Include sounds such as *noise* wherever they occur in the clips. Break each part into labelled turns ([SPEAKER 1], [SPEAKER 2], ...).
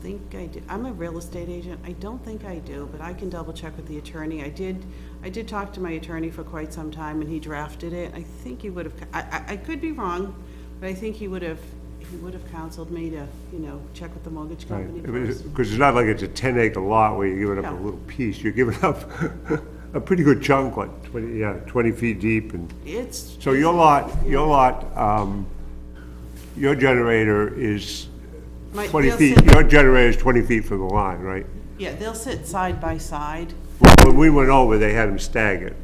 [SPEAKER 1] think I do. I'm a real estate agent. I don't think I do, but I can double check with the attorney. I did, I did talk to my attorney for quite some time and he drafted it. I think he would have, I, I, I could be wrong, but I think he would have, he would have counseled me to, you know, check with the mortgage company first.
[SPEAKER 2] Because it's not like it's a 10-acre lot where you're giving up a
[SPEAKER 1] No.
[SPEAKER 2] little piece. You're giving up *laughs* a pretty good chunk, like 20, yeah, 20 feet deep and...
[SPEAKER 1] It's,
[SPEAKER 2] So your lot, your lot, um, your generator is
[SPEAKER 1] My-
[SPEAKER 2] 20
[SPEAKER 1] they'll
[SPEAKER 2] feet,
[SPEAKER 1] sit-
[SPEAKER 2] your generator is 20 feet from the line, right?
[SPEAKER 1] yeah, they'll sit side by side.
[SPEAKER 2] Well, When we went over, they had them staggered.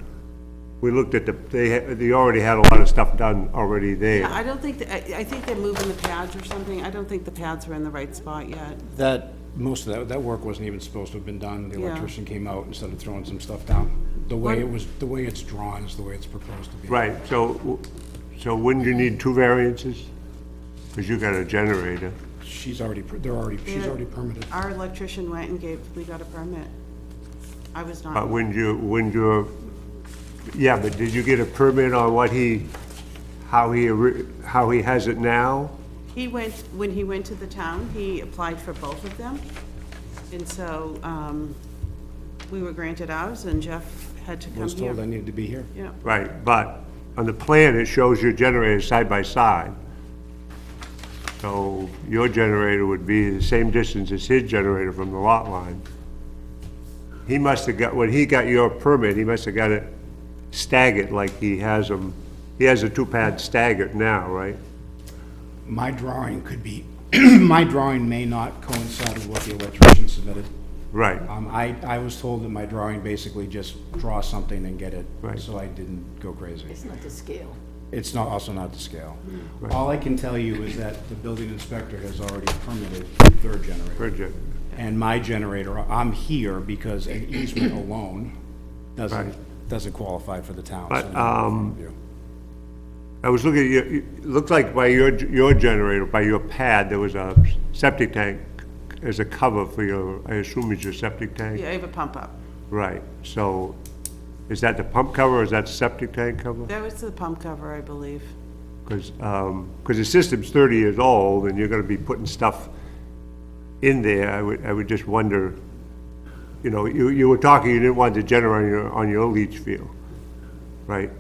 [SPEAKER 2] We looked at the, they, had- they already had a lot of stuff done already
[SPEAKER 1] Yeah,
[SPEAKER 2] there.
[SPEAKER 1] I don't think, that- I, I think they're moving the pads or something. I don't think the pads are in the right spot yet.
[SPEAKER 3] That, most of that, that work wasn't even supposed to have been done. The
[SPEAKER 1] Yeah.
[SPEAKER 3] electrician came out and started throwing some stuff down. The way it was, the way it's drawn is the way it's proposed to be.
[SPEAKER 2] Right, so, w- so wouldn't you need two variances? Because you got a generator.
[SPEAKER 3] She's already, per- they're already, she's
[SPEAKER 1] Yeah. Uh,
[SPEAKER 3] already permitted.
[SPEAKER 1] Our electrician went and gave, we got a permit. I was not.
[SPEAKER 2] But wouldn't Uh, you, wouldn't you, yeah, but did you get a permit on what he, how he, ori- how he has it now?
[SPEAKER 1] He went, when he went to the town, he applied for both of them. And so um, we were granted ours, and Jeff had to
[SPEAKER 3] I
[SPEAKER 1] come
[SPEAKER 3] was told I
[SPEAKER 1] here.
[SPEAKER 3] needed to be here.
[SPEAKER 1] Yeah,
[SPEAKER 2] Right, but on the plan, it shows your generator side by side. So your generator would be the same distance as his generator from the lot line. He must have got, when he got your permit, he must have got it staggered like he has them, he has a two-pad staggered now, right?
[SPEAKER 3] My drawing could be, *clears throat* my drawing may not coincide with what the electrician submitted.
[SPEAKER 2] Right,
[SPEAKER 3] Um, I, I was told that my drawing basically just draw something and get it.
[SPEAKER 2] Right.
[SPEAKER 3] So I didn't go crazy.
[SPEAKER 4] It's not the scale.
[SPEAKER 3] It's not, also not to scale. All I can tell you is that the building inspector has already permitted the third generator.
[SPEAKER 2] Bridget,
[SPEAKER 3] And my generator, I'm here because an easement alone doesn't, doesn't qualify for the town. so
[SPEAKER 2] But, um,
[SPEAKER 3] I'm in front of you.
[SPEAKER 2] I was looking at your, it looked like by your, your generator, by your pad, there was a septic tank as a cover for your, I assume it's your septic tank?
[SPEAKER 1] yeah, I have a pump up.
[SPEAKER 2] Right, so is that the pump cover or is that septic tank cover?
[SPEAKER 1] That was the pump cover, I believe.
[SPEAKER 2] Because, um, the system's 30 years old and you're going to be putting stuff in there, I would, I would just wonder, you know, you, you were talking, you didn't want the generator on your, on your leach field, right?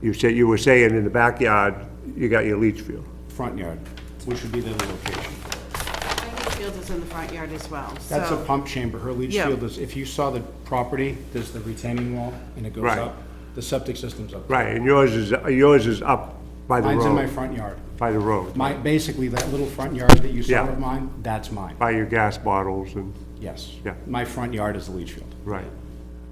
[SPEAKER 2] You said, you were saying in the backyard, you got your leach field.
[SPEAKER 3] Front yard, which would be the other location.
[SPEAKER 1] My leach field is in the front yard as well, so.
[SPEAKER 3] That's a pump chamber. Her leach
[SPEAKER 1] Yeah.
[SPEAKER 3] field is, if you saw the property, there's the retaining wall and it goes
[SPEAKER 2] Right.
[SPEAKER 3] up. The septic system's up.
[SPEAKER 2] Right, and yours is, yours is up by the
[SPEAKER 3] Mine's in my
[SPEAKER 2] road,
[SPEAKER 3] front yard.
[SPEAKER 2] by the road,
[SPEAKER 3] My, basically, that little front yard that you saw
[SPEAKER 2] Yeah.
[SPEAKER 3] of mine, that's mine.
[SPEAKER 2] by your gas bottles and...
[SPEAKER 3] Yes.
[SPEAKER 2] Yeah.
[SPEAKER 3] My front yard is the leach field.
[SPEAKER 2] Right.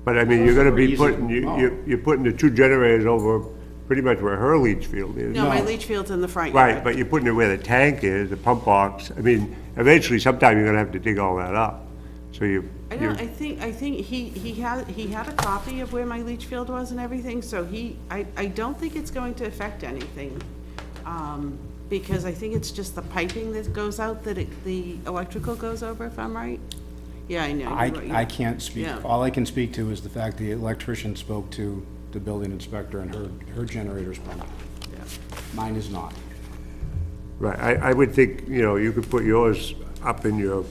[SPEAKER 2] But I mean, you're gonna
[SPEAKER 3] Those
[SPEAKER 2] be
[SPEAKER 3] are very easy
[SPEAKER 2] putting,
[SPEAKER 3] to
[SPEAKER 2] you-
[SPEAKER 3] mow.
[SPEAKER 2] you- you're putting the two generators over pretty much where her leach field is.
[SPEAKER 1] No, my
[SPEAKER 3] No.
[SPEAKER 1] leach field's in the front yard.
[SPEAKER 2] Right, but you're putting it where the tank is, the pump box. I mean, eventually sometime you're gonna have to dig all that up. So you,
[SPEAKER 1] I
[SPEAKER 2] you,
[SPEAKER 1] don't, I think, I think he, he had, he had a copy of where my leach field was and everything, so he, I, I don't think it's going to affect anything. Um, because I think it's just the piping that goes out, that it, the electrical goes over, if I'm right? Yeah, I know.
[SPEAKER 3] I,
[SPEAKER 1] you're right,
[SPEAKER 3] I can't speak,
[SPEAKER 1] Yeah.
[SPEAKER 3] all I can speak to is the fact the electrician spoke to the building inspector and her, her generator's pumped.
[SPEAKER 1] yeah.
[SPEAKER 3] Mine is not.
[SPEAKER 2] right, I, I would think, you know, you could put yours up in your,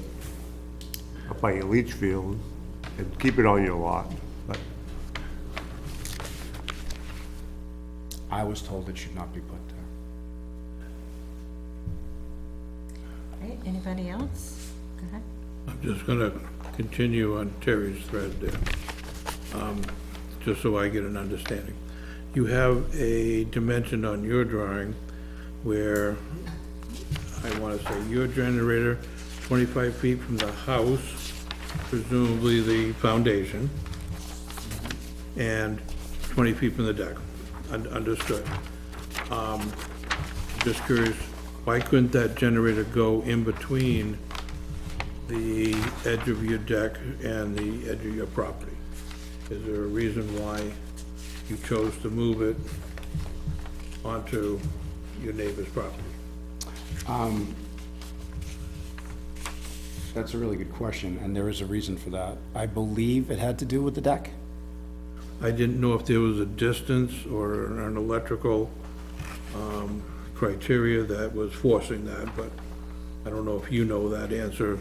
[SPEAKER 2] up by your leach field and keep it on your lot. But
[SPEAKER 3] I was told it should not be put there.
[SPEAKER 4] Right, anybody else? Go ahead.
[SPEAKER 5] I'm just gonna continue on Terry's thread there, um, just so I get an understanding. You have a dimension on your drawing where, I wanna say, your generator, twenty-five feet from the house, presumably the foundation, and twenty feet from the deck. Un- Understood. Um, Just curious, why couldn't that generator go in between the edge of your deck and the edge of your property? Is there a reason why you chose to move it onto your neighbor's property?
[SPEAKER 3] That's a really good question, and there is a reason for that. I believe it had to do with the deck.
[SPEAKER 5] I didn't know if there was a distance or an electrical um, criteria that was forcing that, but I don't know if you know that answer